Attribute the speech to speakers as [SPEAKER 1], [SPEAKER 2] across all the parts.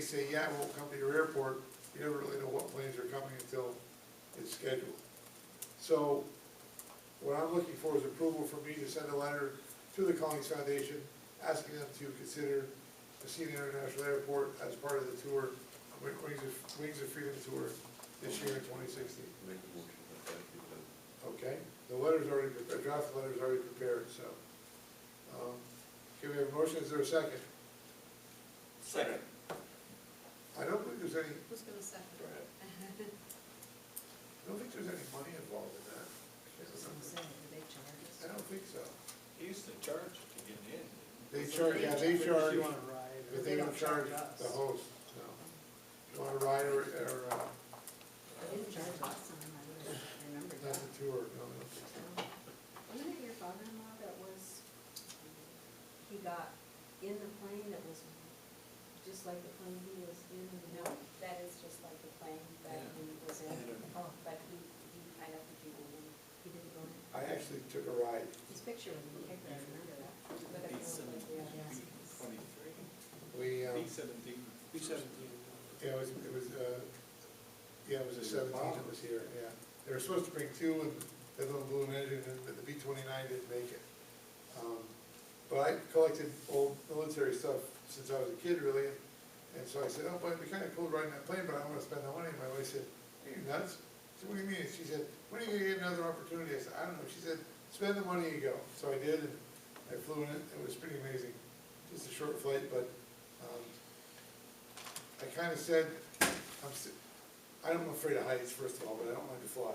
[SPEAKER 1] say, yeah, I won't come to your airport, you never really know what planes are coming until it's scheduled. So what I'm looking for is approval for me to send a letter to the Collings Foundation asking them to consider Messina International Airport as part of the tour, Wings of, Wings of Freedom Tour this year in twenty sixteen.
[SPEAKER 2] Make a motion that that be done.
[SPEAKER 1] Okay, the letter's already, pre- the draft letter's already prepared, so. um, Can we have a motion, is there a second?
[SPEAKER 3] Second.
[SPEAKER 1] I don't believe there's any,
[SPEAKER 4] Who's gonna second?
[SPEAKER 1] Go ahead. I don't think there's any money involved in that.
[SPEAKER 4] That's what I'm saying, do they charge us?
[SPEAKER 1] I don't think so.
[SPEAKER 3] He used to charge to get in.
[SPEAKER 1] They charge, yeah, they
[SPEAKER 5] If you
[SPEAKER 1] charge,
[SPEAKER 5] want to ride,
[SPEAKER 1] but they don't charge the host, no. You want to ride or, or, uh,
[SPEAKER 4] They didn't charge last time, I would've remembered
[SPEAKER 1] not
[SPEAKER 4] that.
[SPEAKER 1] the tour, no, no.
[SPEAKER 4] Wasn't it your father-in-law that was, he got in the plane that was just like the plane he was in?
[SPEAKER 6] No, that is just like the plane that he was in,
[SPEAKER 4] Oh,
[SPEAKER 6] but he, he, I don't think he went in.
[SPEAKER 4] He didn't go in.
[SPEAKER 1] I actually took a ride.
[SPEAKER 4] His picture was in the paper, I remember that.
[SPEAKER 6] But it was like, yeah.
[SPEAKER 3] Twenty-three,
[SPEAKER 1] We, um,
[SPEAKER 3] B seventeen.
[SPEAKER 5] Two seventeen.
[SPEAKER 1] yeah, it was, it was, uh, yeah, it was a seventeen that was here, yeah. They were supposed to bring two and the little blue engine and the B twenty-nine didn't make it. Um, But I collected old military stuff since I was a kid really, and- and so I said, oh, but it'd be kinda cool riding that plane, but I don't wanna spend the money. My wife said, are you nuts? I said, what do you mean? She said, when are you gonna get another opportunity? I said, I don't know. She said, spend the money you go. So I did, and I flew in it, it was pretty amazing. Just a short flight, but, um, I kinda said, I'm, s- I'm afraid of heights, first of all, but I don't like to fly.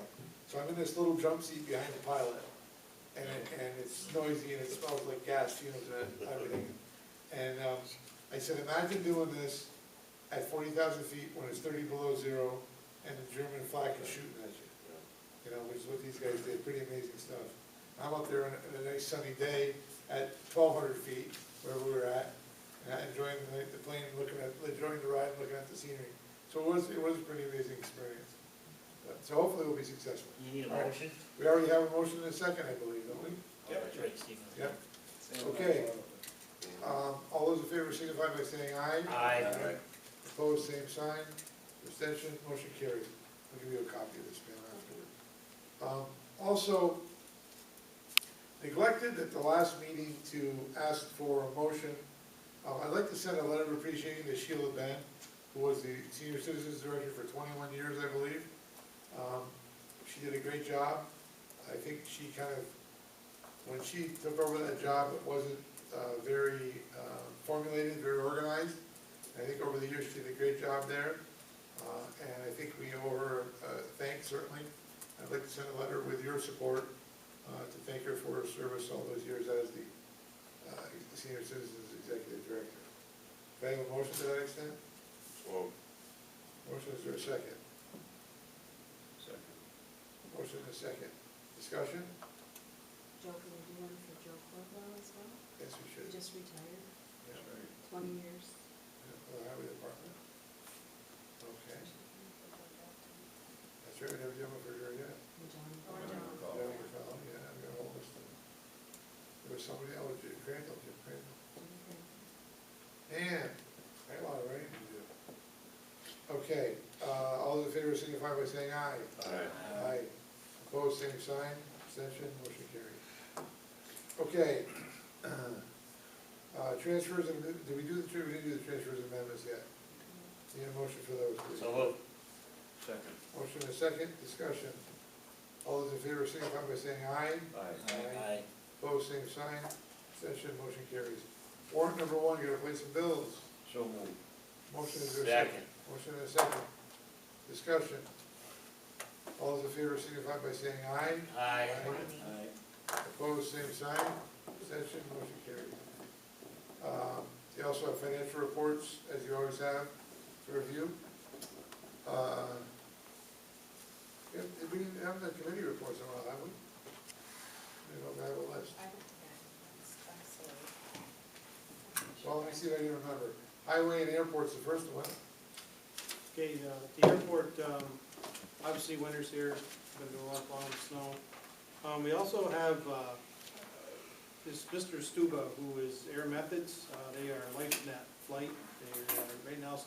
[SPEAKER 1] So I'm in this little jump seat behind the pilot, and, it- and it's noisy and it smells like gas fumes and everything. And, um, I said, imagine doing this at forty thousand feet when it's thirty below zero and the German flag is shooting at you. You know, which is what these guys did, pretty amazing stuff. I'm up there on a, on a nice sunny day at twelve hundred feet, where we were at, and I enjoying the, the plane, and looking at, enjoying the ride, and looking at the scenery. So it was, it was a pretty amazing experience. Uh, So hopefully we'll be successful.
[SPEAKER 7] You need a
[SPEAKER 1] All right.
[SPEAKER 7] motion?
[SPEAKER 1] We already have a motion and a second, I believe, don't we?
[SPEAKER 3] Yep.
[SPEAKER 7] That's right, Stephen.
[SPEAKER 1] Yep. Okay. Um, all those in favor signify by saying aye.
[SPEAKER 7] Aye.
[SPEAKER 2] Aye.
[SPEAKER 1] Opposed, same sign. Abstention, motion carried. I'll give you a copy of this panel afterward. Um, also, neglected at the last meeting to ask for a motion. Uh, I'd like to send a letter of appreciation to Sheila Ben, who was the senior citizens director for twenty-one years, I believe. Um, she did a great job. I think she kind of when she took over that job, it wasn't uh, very uh, formulated, very organized. I think over the years, she did a great job there, uh, and I think we owe her a thanks certainly. I'd like to send a letter with your support uh, to thank her for her service all those years as the uh, Senior Citizens Executive Director. Do I have a motion to that extent?
[SPEAKER 2] Well,
[SPEAKER 1] Motion is there a second?
[SPEAKER 2] second.
[SPEAKER 1] Motion is second. Discussion?
[SPEAKER 4] Joe, can we do one for Joe Corbo as well?
[SPEAKER 1] Yes, we
[SPEAKER 4] He
[SPEAKER 1] should.
[SPEAKER 4] just retired,
[SPEAKER 1] Yeah, right.
[SPEAKER 4] twenty years.
[SPEAKER 1] Yeah, for the highway department? Okay, that's right, we never did one for her yet.
[SPEAKER 4] And John.
[SPEAKER 6] Or John.
[SPEAKER 1] Yeah, we found- yeah, I've got all this stuff. There was somebody else, Jim Crandall, Jim Crandall.
[SPEAKER 4] Okay.
[SPEAKER 1] And, I got a lot of writing to do. Okay, uh, all those in favor signify by saying aye.
[SPEAKER 2] Aye.
[SPEAKER 1] Aye. Opposed, same sign, abstention, motion carried. Okay. Uh, transfers, and did we do the, tr- we didn't do the transfers and amendments yet? Need a motion for those, please?
[SPEAKER 7] So moved.
[SPEAKER 2] Second.
[SPEAKER 1] Motion and a second, discussion. All those in favor signify by saying aye.
[SPEAKER 2] Aye.
[SPEAKER 7] Aye.
[SPEAKER 1] Opposed, same sign. Abstention, motion carries. Warrant number one, you gotta pay some bills.
[SPEAKER 2] So moved.
[SPEAKER 1] Motion is there a second?
[SPEAKER 7] Second.
[SPEAKER 1] Motion and a second. Discussion. All those in favor signify by saying aye.
[SPEAKER 7] Aye.
[SPEAKER 3] Aye.
[SPEAKER 1] Opposed, same sign. Abstention, motion carries. Um, You also have financial reports, as you always have, to review. Uh, yeah, Did we have the committee reports in a while, have we? We don't have a list.
[SPEAKER 6] I don't think I, I'm sorry.
[SPEAKER 1] Well, let me see if I can remember. Highway and airport's the first one.
[SPEAKER 5] Okay, the, the airport, um, obviously winter's here, been doing a lot of long snow. Um, we also have, uh, this Mr. Stuba, who is Air Methods, uh, they are LifeNet Flight, they are right now